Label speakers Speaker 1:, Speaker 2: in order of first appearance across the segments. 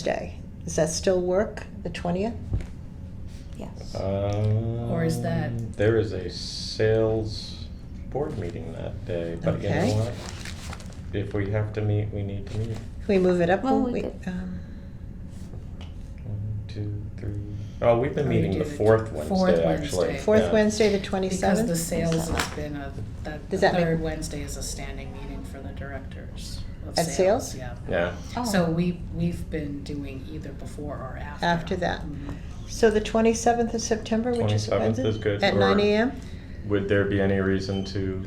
Speaker 1: Wednesday. Does that still work, the 20th?
Speaker 2: Yes.
Speaker 3: Uh, Or
Speaker 4: is that-
Speaker 3: Um, There is a sales board meeting that day, but you know
Speaker 1: Okay.
Speaker 3: what? If we have to meet, we need to meet.
Speaker 1: Can we move it up?
Speaker 2: Well,
Speaker 1: one
Speaker 2: we
Speaker 1: week?
Speaker 2: could-
Speaker 1: Um,
Speaker 3: One, two, three. Oh, we've been
Speaker 4: Oh, we
Speaker 3: meeting
Speaker 4: do
Speaker 3: the
Speaker 4: the
Speaker 3: fourth
Speaker 4: fourth
Speaker 3: Wednesday, actually.
Speaker 4: Wednesday.
Speaker 1: Fourth
Speaker 3: yeah.
Speaker 1: Wednesday, the
Speaker 4: Because the
Speaker 1: 27th?
Speaker 4: sales has been a, that the
Speaker 1: Does that make-
Speaker 4: third Wednesday is a standing meeting for the directors of
Speaker 1: At sales? Oh.
Speaker 4: sales, yeah.
Speaker 3: Yeah,
Speaker 4: So we, we've been doing either before or after.
Speaker 1: After that.
Speaker 4: Mhm.
Speaker 1: So the 27th of September, which is
Speaker 3: 27th
Speaker 1: Wednesday?
Speaker 3: is good,
Speaker 1: At
Speaker 3: or-
Speaker 1: 9 AM?
Speaker 3: would there be any reason to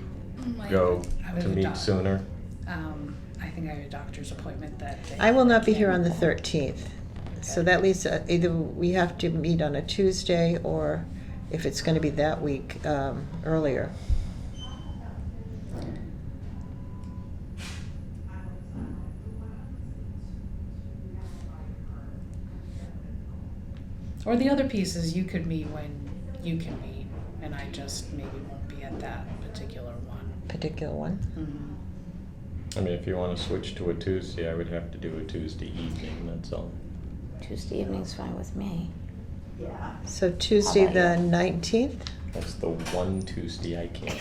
Speaker 3: go
Speaker 4: I
Speaker 3: to
Speaker 4: would
Speaker 3: meet
Speaker 4: adopt.
Speaker 3: sooner?
Speaker 4: Um, I think I have a doctor's appointment that day.
Speaker 1: I will not be here
Speaker 4: Yeah.
Speaker 1: on the 13th. So
Speaker 4: Okay.
Speaker 1: that leaves, uh, either we have to meet on a Tuesday, or if it's going to be that week, um, earlier.
Speaker 4: Or the other piece is you could meet when you can meet, and I just maybe won't be at that particular one.
Speaker 1: Particular one?
Speaker 4: Mhm.
Speaker 3: I mean, if you wanna switch to a Tuesday, I would have to do a Tuesday evening, that's all.
Speaker 2: Tuesday evening's fine with me.
Speaker 1: So Tuesday,
Speaker 2: How about
Speaker 1: the 19th?
Speaker 3: That's the one Tuesday I can't.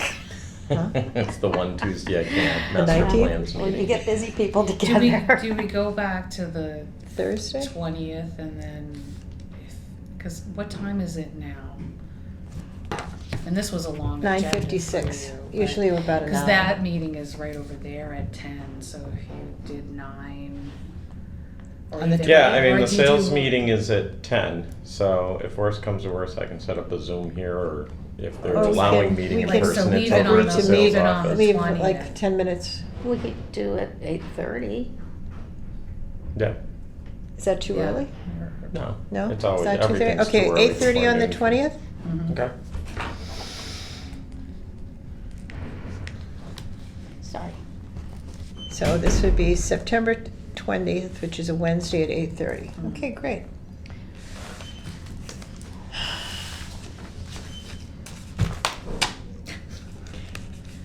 Speaker 1: Huh?
Speaker 3: That's the one Tuesday I can't.
Speaker 1: The
Speaker 3: Master
Speaker 1: 19th?
Speaker 3: plans
Speaker 2: When you
Speaker 3: meeting.
Speaker 2: get busy people
Speaker 4: Do we,
Speaker 2: together.
Speaker 4: do we go back to the
Speaker 1: Thursday?
Speaker 4: twentieth and then, because what time is it now? And this was a long
Speaker 1: Nine
Speaker 4: agenda for
Speaker 1: fifty-six.
Speaker 4: you, but-
Speaker 1: Usually we're about an
Speaker 4: Cause
Speaker 1: hour.
Speaker 4: that meeting is right over there at ten, so if you did nine. or
Speaker 1: On the
Speaker 4: you did-
Speaker 3: Yeah, I
Speaker 4: or
Speaker 3: mean, the
Speaker 4: you do-
Speaker 3: sales meeting is at ten, so if worse comes to worse, I can set up a Zoom here, or if they're
Speaker 1: Or Oh, we
Speaker 3: allowing
Speaker 1: can-
Speaker 3: meeting
Speaker 1: we
Speaker 3: in
Speaker 1: can- Like, so
Speaker 3: person, it's
Speaker 1: leave it
Speaker 3: over
Speaker 1: on
Speaker 3: at the
Speaker 1: the-
Speaker 3: sales
Speaker 1: leave it
Speaker 4: on the-
Speaker 3: office.
Speaker 1: Leave
Speaker 4: 20th.
Speaker 1: like 10 minutes.
Speaker 2: We could do it eight thirty.
Speaker 3: Yeah,
Speaker 1: Is that too
Speaker 4: Yeah.
Speaker 1: early?
Speaker 3: no.
Speaker 1: No?
Speaker 3: It's
Speaker 1: Is
Speaker 3: always,
Speaker 1: that 2:30?
Speaker 3: everything's too early
Speaker 1: Okay, eight thirty
Speaker 3: for
Speaker 1: on the
Speaker 3: me.
Speaker 1: twentieth?
Speaker 4: Mhm.
Speaker 3: Okay.
Speaker 2: Sorry.
Speaker 1: So this would be September twentieth, which is a Wednesday at eight thirty.
Speaker 4: Mhm.
Speaker 1: Okay, great.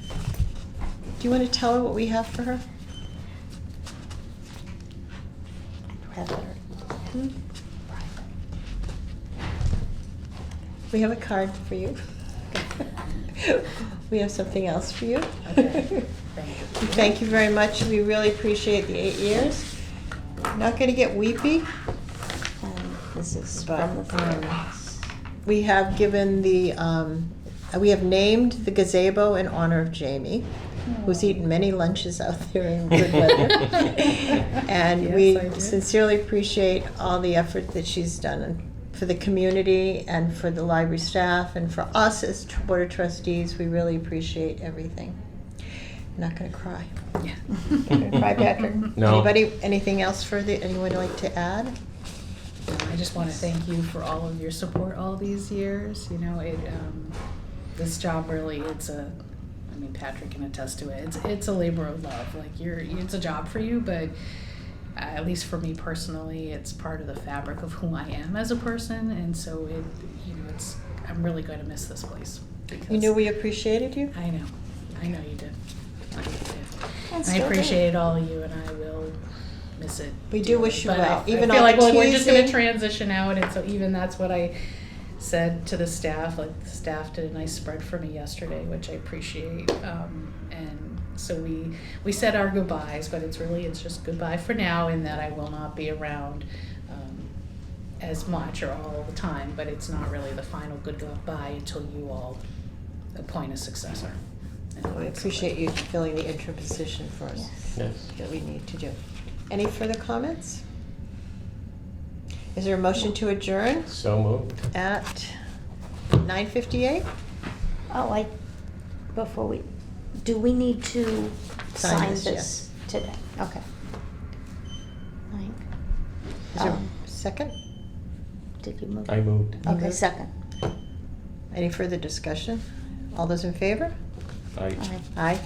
Speaker 1: Do you want to tell her what we have for her?
Speaker 2: I'd rather. Hmm?
Speaker 4: Hmm?
Speaker 1: We have a card for you. We have something else for you.
Speaker 4: Okay, thank
Speaker 1: We
Speaker 4: you.
Speaker 1: Thank you very much. We really appreciate the eight years. Not gonna get weepy.
Speaker 2: Um, This is
Speaker 1: But,
Speaker 2: from the
Speaker 1: um,
Speaker 2: firehouse.
Speaker 1: We have given the, um, we have named the gazebo in honor of Jamie, who's eaten many lunches out there in good weather. And
Speaker 4: Yes,
Speaker 1: we
Speaker 4: I did.
Speaker 1: sincerely appreciate all the effort that she's done for the community and for the library staff and for us as tr- board of trustees. We really appreciate everything. I'm not gonna cry.
Speaker 4: Yeah.
Speaker 1: Cry,
Speaker 2: Mm-hmm.
Speaker 1: Patrick.
Speaker 3: No.
Speaker 1: Anybody, anything else further, anyone like to add?
Speaker 4: I just want to thank you for all of your support all these years. You know, it um, this job really it's a I mean Patrick can attest to it. It's it's a labor of love. Like you're it's a job for you, but uh, at least for me personally, it's part of the fabric of who I am as a person, and so it you know it's I'm really going to miss this place. Because
Speaker 1: You knew we appreciated you?
Speaker 4: I know, I know you did. I know you did.
Speaker 1: And
Speaker 4: I
Speaker 1: still do.
Speaker 4: appreciate all of you, and I will miss it.
Speaker 1: We do
Speaker 4: dearly.
Speaker 1: wish you
Speaker 4: But
Speaker 1: well.
Speaker 4: I,
Speaker 1: Even
Speaker 4: I feel
Speaker 1: all
Speaker 4: like
Speaker 1: the
Speaker 4: well, we're just going to
Speaker 1: teasing.
Speaker 4: transition out, and so even that's what I said to the staff. Like the staff did a nice spread for me yesterday, which I appreciate. Um, and so we we said our goodbyes, but it's really it's just goodbye for now, in that I will not be around. Um, as much or all the time, but it's not really the final good goodbye until you all appoint a successor. And
Speaker 1: We Oh, appreciate you filling the interim position for us
Speaker 2: Yes.
Speaker 3: Yes.
Speaker 1: that we need to do. Any further comments? Is there a motion to adjourn
Speaker 3: So moved.
Speaker 1: at nine fifty-eight?
Speaker 2: Oh, I, before we, do we need to
Speaker 1: Sign
Speaker 2: sign
Speaker 1: this,
Speaker 2: this today? Okay. Mike,
Speaker 1: Is there
Speaker 2: Um.
Speaker 1: a second?
Speaker 2: did you move?
Speaker 3: I moved.
Speaker 1: Oh.
Speaker 2: Okay,
Speaker 1: moved.
Speaker 2: second.
Speaker 1: Any further discussion? All those in favor?
Speaker 3: I
Speaker 1: Uh,
Speaker 2: All right.
Speaker 1: Aye.